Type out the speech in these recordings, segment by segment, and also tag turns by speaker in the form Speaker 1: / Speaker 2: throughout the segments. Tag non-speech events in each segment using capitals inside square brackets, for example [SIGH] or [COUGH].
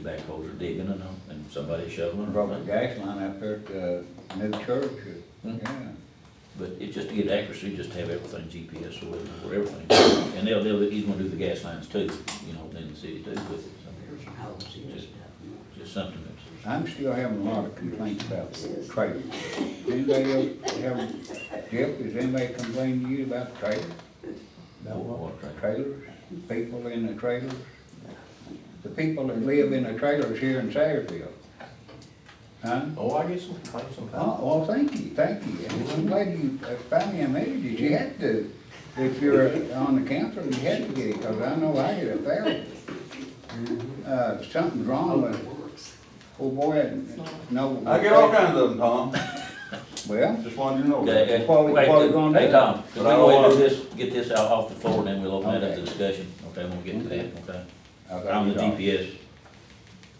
Speaker 1: backhoes are digging and, all, and somebody shoveling.
Speaker 2: Broke the
Speaker 1: and-
Speaker 2: gas line up there at the new church,
Speaker 1: Hmm.
Speaker 2: yeah.
Speaker 1: But it's just to get accuracy, just to have everything GPS so we'll know where everything. is. And they'll, they'll, he's gonna do the gas lines too, you know, in the city too with it, so it's just something that's,
Speaker 2: I'm still having a lot of complaints about the trailer. Anybody else have, Jeff, has anybody complained to you about trailers?
Speaker 1: About what trailer?
Speaker 2: Trailers, people in the trailers? The people that live in the trailers here in Sayersville. Huh?
Speaker 3: Oh, I get some complaints sometimes.
Speaker 2: Oh, well, thank you, thank you. And I'm glad you uh, finally admitted it. You had to, if you're on the council, you had to get it, because I know I get a thousand.
Speaker 1: Mm-hmm.
Speaker 2: Uh, something's wrong with, oh boy, no.
Speaker 3: I get all kinds of them, Tom,
Speaker 2: Well,
Speaker 3: just wanted to know.
Speaker 1: Okay,
Speaker 2: What
Speaker 1: okay,
Speaker 2: we-
Speaker 1: wait,
Speaker 2: what we gonna
Speaker 1: hey,
Speaker 2: do?
Speaker 1: Tom, if we
Speaker 3: But I don't
Speaker 1: go ahead and do
Speaker 3: wanna-
Speaker 1: this, get this out off the floor, and then we'll open that up to
Speaker 2: Okay.
Speaker 1: discussion, okay, we'll get to that, okay?
Speaker 2: I thought
Speaker 1: On the
Speaker 2: you were-
Speaker 1: GPS,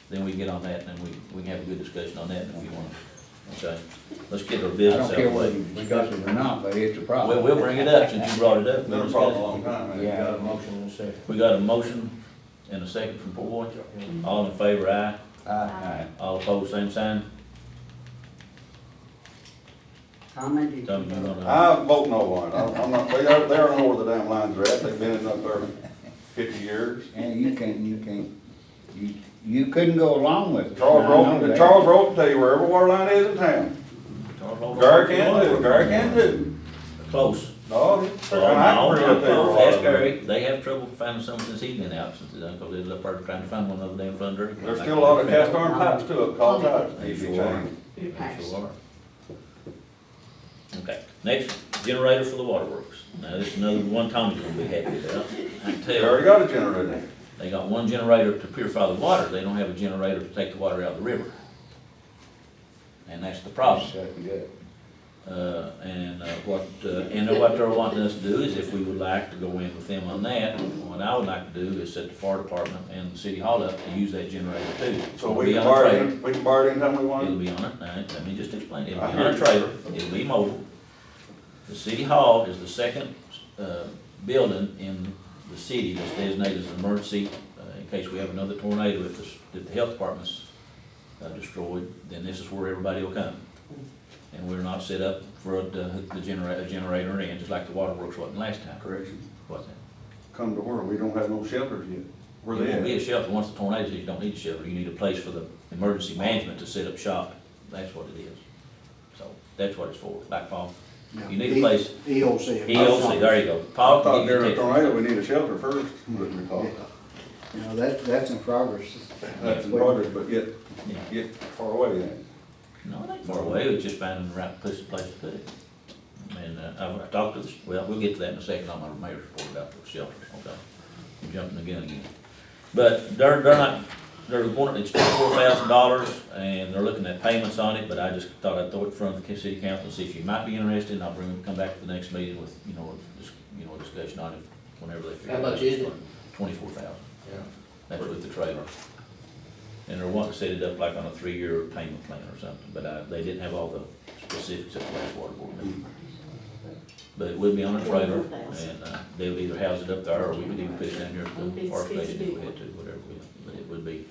Speaker 1: then we can get on that, and then we, we can have a good discussion on that if you want, okay? Let's get our
Speaker 2: I
Speaker 1: business
Speaker 2: don't
Speaker 1: out
Speaker 2: care
Speaker 1: of the
Speaker 2: whether
Speaker 1: way.
Speaker 2: you discuss it or not, but it's a problem.
Speaker 1: Well, we'll bring it up since you brought it up.
Speaker 3: Been
Speaker 1: We'll
Speaker 3: a
Speaker 1: discuss it.
Speaker 3: problem a long time, man.
Speaker 2: Yeah.
Speaker 3: Got a motion in a second.
Speaker 1: We got a motion and a second from Boyd. All in favor, aye.
Speaker 2: Uh, Aye.
Speaker 1: All opposed, same sign.
Speaker 4: Comment, did you
Speaker 1: Tom, you
Speaker 4: vote?
Speaker 1: wanna-
Speaker 3: I vote no one, I'm I'm not, they don't, they don't know where the damn lines are at, they've been in up there fifty years.
Speaker 2: And you can't, you can't, you, you couldn't go along with it.
Speaker 3: Charles
Speaker 2: I know
Speaker 3: Roden,
Speaker 2: that.
Speaker 3: Charles Roden tell you where every water line is in town. Gary can do, it. Gary can do.
Speaker 1: Close.
Speaker 3: it. No, it's- I
Speaker 1: Well, no,
Speaker 3: can bring up there a
Speaker 1: no,
Speaker 3: lot
Speaker 1: Ask
Speaker 3: of them.
Speaker 1: Gary, they have trouble finding some since he's been out since, because they're up there trying to find one of them damn thunder.
Speaker 3: There's still a lot of cast iron pipes too, up called pipes, that need to be changed.
Speaker 1: They sure are. Okay, next, generator for the waterworks. Now, this is another one Tommy's gonna be happy about. I can
Speaker 3: They
Speaker 1: tell.
Speaker 3: already got a generator.
Speaker 1: They got one generator to purify the water, they don't have a generator to take the water out of the river. And that's the problem.
Speaker 2: Shut it up.
Speaker 1: Uh, and uh, what, uh, and what they're wanting us to do is if we would like to go in with them on that, what I would like to do is set the fire department and the city hall up to use that generator too.
Speaker 3: So
Speaker 1: It'll
Speaker 3: we
Speaker 1: be
Speaker 3: can
Speaker 1: on a
Speaker 3: borrow,
Speaker 1: trailer.
Speaker 3: it. we can borrow it anytime we
Speaker 1: It'll
Speaker 3: want.
Speaker 1: be on it, now, let me just explain, it'll
Speaker 3: I
Speaker 1: be
Speaker 3: hear
Speaker 1: on a
Speaker 3: you.
Speaker 1: trailer, it'll be mobile. The city hall is the second, uh, building in the city that's designated as an emergency, uh, in case we have another tornado, if the, if the health department's, uh, destroyed, then this is where everybody will come. And we're not set up for it to hook the generator, generator in, just like the waterworks wasn't last time,
Speaker 3: Correction.
Speaker 1: was it?
Speaker 3: Come to where, we don't have no shelters yet. Where
Speaker 1: It won't be
Speaker 3: they
Speaker 1: a
Speaker 3: at?
Speaker 1: shelter, once the tornado hits, you don't need a shelter, you need a place for the emergency management to set up shop, that's what it is. So, that's what it's for, like Paul, you need a place,
Speaker 4: EOC.
Speaker 1: EOC, there you go, Paul
Speaker 3: I
Speaker 1: can
Speaker 3: thought
Speaker 1: give
Speaker 3: during
Speaker 1: you
Speaker 3: a
Speaker 1: the
Speaker 3: tornado, we need a shelter first, [LAUGHS] what we thought.
Speaker 5: You know, that, that's in progress.
Speaker 3: That's in progress, but yet,
Speaker 1: text.
Speaker 3: get far away then.
Speaker 1: No, it ain't far away, it's just finding the right place, place to put it. And, uh, I've I talked to this, well, we'll get to that in a second on my mayor's report about the shelter, okay? I'm jumping the gun again. But they're, they're not, they're wanting, it's twenty-four thousand dollars, and they're looking at payments on it, but I just thought I'd throw it in front of the city council, see if you might be interested, and I'll bring them, come back to the next meeting with, you know, a dis you know, a discussion on it, whenever they figure.
Speaker 6: How
Speaker 1: out
Speaker 6: much is it?
Speaker 1: Twenty-four thousand.
Speaker 6: Yeah.
Speaker 1: That's with the trailer. And they're wanting to set it up like on a three-year payment plan or something, but I, they didn't have all the specifics at the last water board meeting. But it would be on a trailer, and, uh, they would either house it up there, or we could even put it down here at the park station if we had to, whatever, we- but it would be.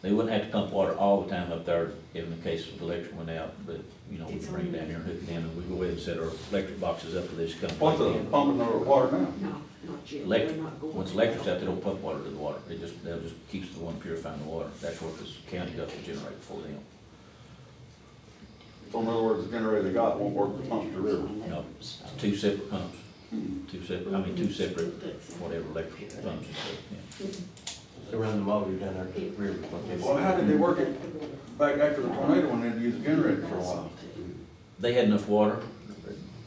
Speaker 1: They wouldn't have to pump water all the time up there, in the case of electric went out, but, you know, we could bring it down here and hook it in, and we go ahead and set our electric boxes up for this company.
Speaker 3: What's the pumping of the water now?
Speaker 4: No, not yet.
Speaker 1: Electric,
Speaker 4: We're not going
Speaker 1: once
Speaker 4: to.
Speaker 1: electric's out, they don't pump water to the water, it just, that just keeps the one purifying the water, that's what this county does to generate for them.
Speaker 3: So in other words, the generator they got won't work to pump the river.
Speaker 1: No, it's two separate pumps,
Speaker 3: Hmm.
Speaker 1: two separate, I mean, two separate, whatever electrical pumps and stuff, yeah.
Speaker 6: They run the motor down there, to the river, what they
Speaker 3: Well, how did they work it back after the tornado when they had to use the generator for a while?
Speaker 1: They had enough water,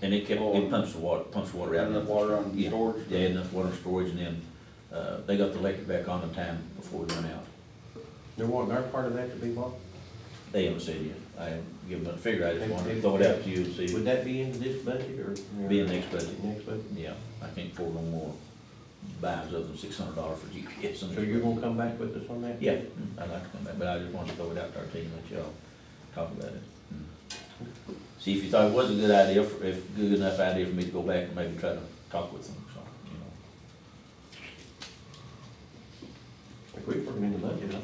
Speaker 1: and it kept, it pumps the water, pumps the water
Speaker 3: Had
Speaker 1: out.
Speaker 3: enough water on
Speaker 1: Yeah,
Speaker 3: storage?
Speaker 1: They had enough water and storage, and then, uh, they got the electric back on in time before we went out.
Speaker 6: They're wanting our part of that to be what?
Speaker 1: They haven't said yet, I haven't given them a figure, I just wanted to throw it out to you and
Speaker 6: Would
Speaker 1: see,
Speaker 6: that be in this budget or?
Speaker 1: be in the next budget.
Speaker 6: Next budget?
Speaker 1: Yeah, I can't afford no more buys other than six hundred dollars for GPS. and-
Speaker 6: So you're gonna come back with us on that?
Speaker 1: Yeah, mm, I'd like to come back, but I just wanted to throw it out there to you and let y'all talk about it. Mm. See, if you thought it was a good idea, for- if, good enough idea for me to go back and maybe try to talk with them, so, you know.
Speaker 6: If we put them in the budget, I think